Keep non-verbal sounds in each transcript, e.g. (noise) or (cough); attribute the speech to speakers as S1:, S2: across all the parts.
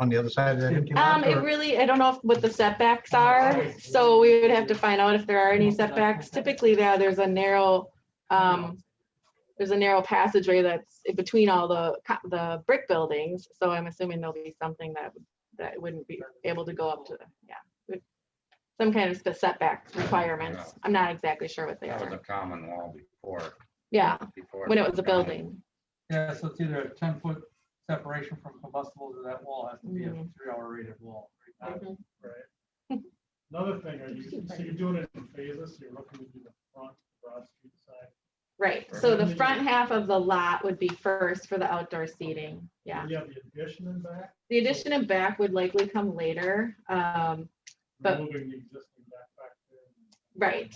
S1: on the other side of that empty lot?
S2: Um, it
S1: or-
S2: really, I don't know if- what the setbacks are, so we would have to find out if there are any setbacks. Typically, there, there's a narrow, um, there's a narrow passageway that's in between all the, co- the brick buildings, so I'm assuming there'll be something that, that wouldn't be able to go up to, yeah. would- Some kind of setback requirements. I'm not exactly sure what they
S3: That was a
S2: are.
S3: common law before.
S2: Yeah,
S3: before
S2: when it was a
S3: common.
S2: building.
S4: Yeah, so it's either a ten foot separation from combustible to that wall has to be a
S2: Mhm.
S4: three hour rated wall. right?
S2: Mhm.
S5: Another thing, are you, so you're doing it in phases, so you're looking to do the front, Broad Street side.
S2: Right, so the front half of the lot would be first for the outdoor seating, yeah.
S5: You have the addition in back.
S2: The addition and back would likely come later. Um, But-
S5: Moving the existing back back there.
S2: Right.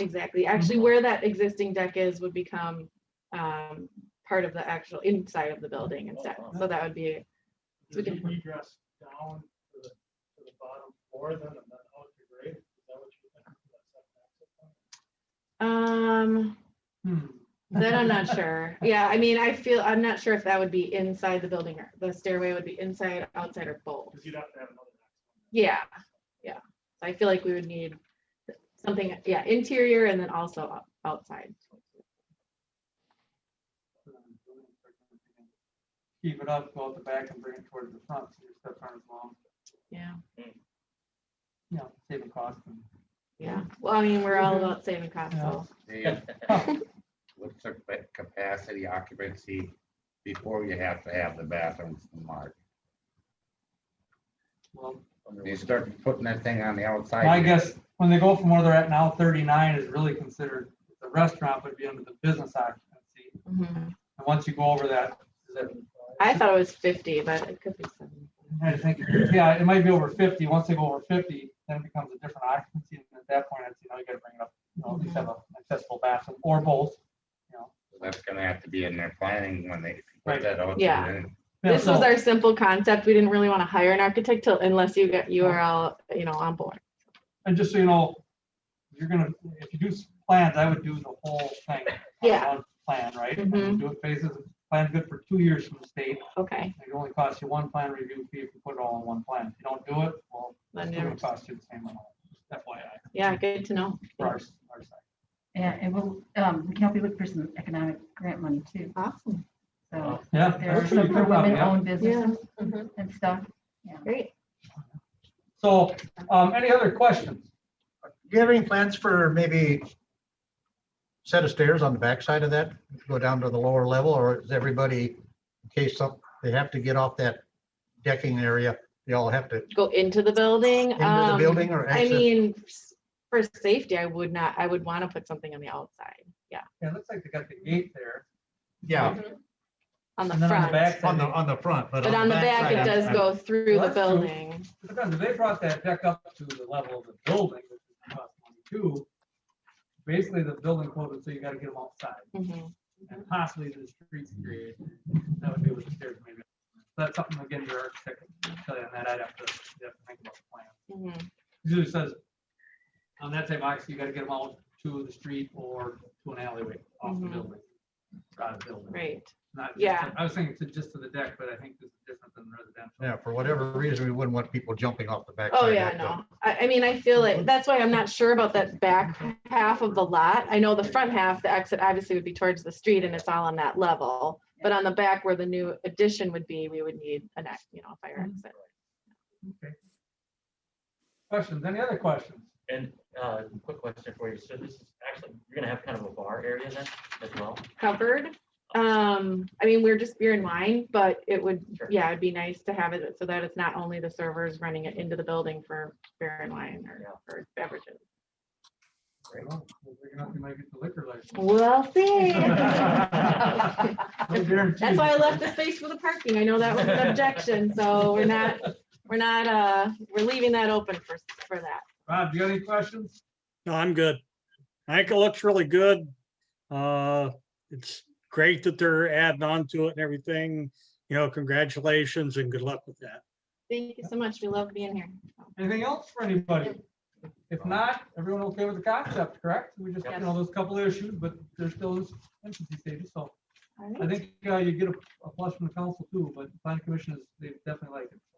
S2: exactly. Actually, where that existing deck is would become um, part of the actual inside of the building instead. So that would be, So we
S5: Does
S2: can-
S5: it egress down to the, to the bottom floor then and then out to grade? Is that what you're thinking? for that setback system?
S2: um,
S4: Uh, hmm.
S2: that I'm not sure. Yeah, I mean, I feel, I'm not sure if that would be inside the building or the stairway would be inside, outside or both.
S5: Cause you'd have to have another. access.
S2: Yeah, yeah. I feel like we would need something, yeah, interior and then also o- outside.
S4: Keep it up, go out the back and bring it towards the front, so your steps aren't as long,
S2: Yeah,
S4: you know, saving cost. and-
S2: yeah. Well, I mean, we're all about saving costs, so.
S3: Dave, (laughs) What's the ca- capacity occupancy before you have to have the bathrooms marked?
S4: Well,
S3: You start putting that thing on the outside.
S4: I
S3: you-
S4: guess when they go from where they're at now, thirty-nine is really considered, the restaurant would be under the business occupancy.
S2: mhm.
S4: And once you go over that, is it
S2: I thought it was fifty, but it could be seventy.
S4: I think, yeah, it might be over fifty. Once they go over fifty, then it becomes a different occupancy. And at that point, it's, you know, you gotta bring it up, you know, at least have an accessible bathroom or both.
S3: That's gonna have to be in their planning when they
S4: Right.
S3: put that out. there,
S2: Yeah.
S3: then
S4: Yeah,
S2: This
S4: so-
S2: was our simple concept. We didn't really want to hire an architect till unless you get, you are all, you know, on board.
S4: And just so you know, you're gonna, if you do s- plans, I would do the whole thing. on
S2: Yeah.
S4: one Plan, right?
S2: Mhm.
S4: And Do it phases. Plan's good for two years from the state.
S2: Okay,
S4: It only costs you one plan review fee if you put it all in one plan. If you don't do it, well,
S2: Then
S4: it's
S2: never-
S4: gonna cost you the same amount. FYI,
S2: yeah, good to know.
S4: for our, s- our side.
S6: Yeah, it will, um, we can help you look for some economic grant money too,
S2: Awesome.
S6: so.
S4: Yeah.
S6: There are
S4: Oh, that's
S6: some
S4: pretty
S6: for
S4: cool, yeah.
S6: women-owned businesses
S2: Mhm.
S6: and stuff.
S2: Great.
S4: So, um, any other questions?
S1: Do you have any plans for maybe set of stairs on the backside of that, go down to the lower level, or is everybody, in case some, they have to get off that decking area, they all have to
S2: Go into the building.
S1: into the
S2: um,
S1: building or
S2: I
S1: exit?
S2: mean, s- for safety, I would not, I would want to put something on the outside. Yeah,
S4: Yeah, it looks like they got the gate there.
S1: Yeah,
S2: on
S4: And
S2: the
S4: then on the
S2: front.
S4: back,
S1: on the, on the front, but.
S2: But on the back, it
S1: backside,
S2: does
S1: I'm-
S2: go through
S4: Well,
S2: the
S4: that's true.
S2: building.
S4: Because if they brought that deck up to the level of the building, which is about twenty-two, basically the building code would say you gotta get them outside
S2: Mhm.
S4: and possibly the streets created. That would be with the stairs maybe. That's something again, your architect can tell you on that. I'd have to, you'd have to think about the plan.
S2: Mhm.
S4: Usually it says, on that same axis, you gotta get them out to the street or to an alleyway off the
S2: Mhm.
S4: building. Out of the building.
S2: Right.
S4: Not just
S2: Yeah.
S4: to- I was thinking to just to the deck, but I think this is different than residential.
S1: Yeah, for whatever reason, we wouldn't want people jumping off the backside.
S2: Oh,
S1: of
S2: yeah,
S1: that building.
S2: no. I, I mean, I feel
S7: Mm-hmm.
S2: like, that's why I'm not sure about that back half of the lot. I know the front half, the exit obviously would be towards the street and it's all on that level. But on the back where the new addition would be, we would need an, ex- you know, a fire
S7: Mm-hmm.
S2: exit.
S4: Okay. Questions, any other questions?
S7: And uh, quick question for you. So this is actually, you're gonna have kind of a bar area then as well?
S2: Covered. Um, I mean, we're just beer and wine, but it would,
S7: Sure.
S2: yeah, it'd be nice to have it so that it's not only the servers running it into the building for beer and wine or
S7: Yeah.
S2: for beverages.
S4: Well, We're gonna have to make it the liquor license.
S2: We'll see. (laughs)
S7: (laughs)
S4: No guarantees.
S2: That's why I left the space for the parking. I know that was an objection, so we're not, we're not, uh, we're leaving that open for, for that.
S4: Rob, do you have any questions?
S8: No, I'm good. I think it looks really good. Uh, it's great that they're adding on to it and everything. You know, congratulations and good luck with that.
S2: Thank you so much. We love being here.
S4: Anything else for anybody? If not, everyone okay with the concept, correct? We just, you know, those couple of issues, but there's still those infancy stages, so
S2: All right.
S4: I think uh, you get a a plus from the council too, but the planning commission is, they definitely like it. so.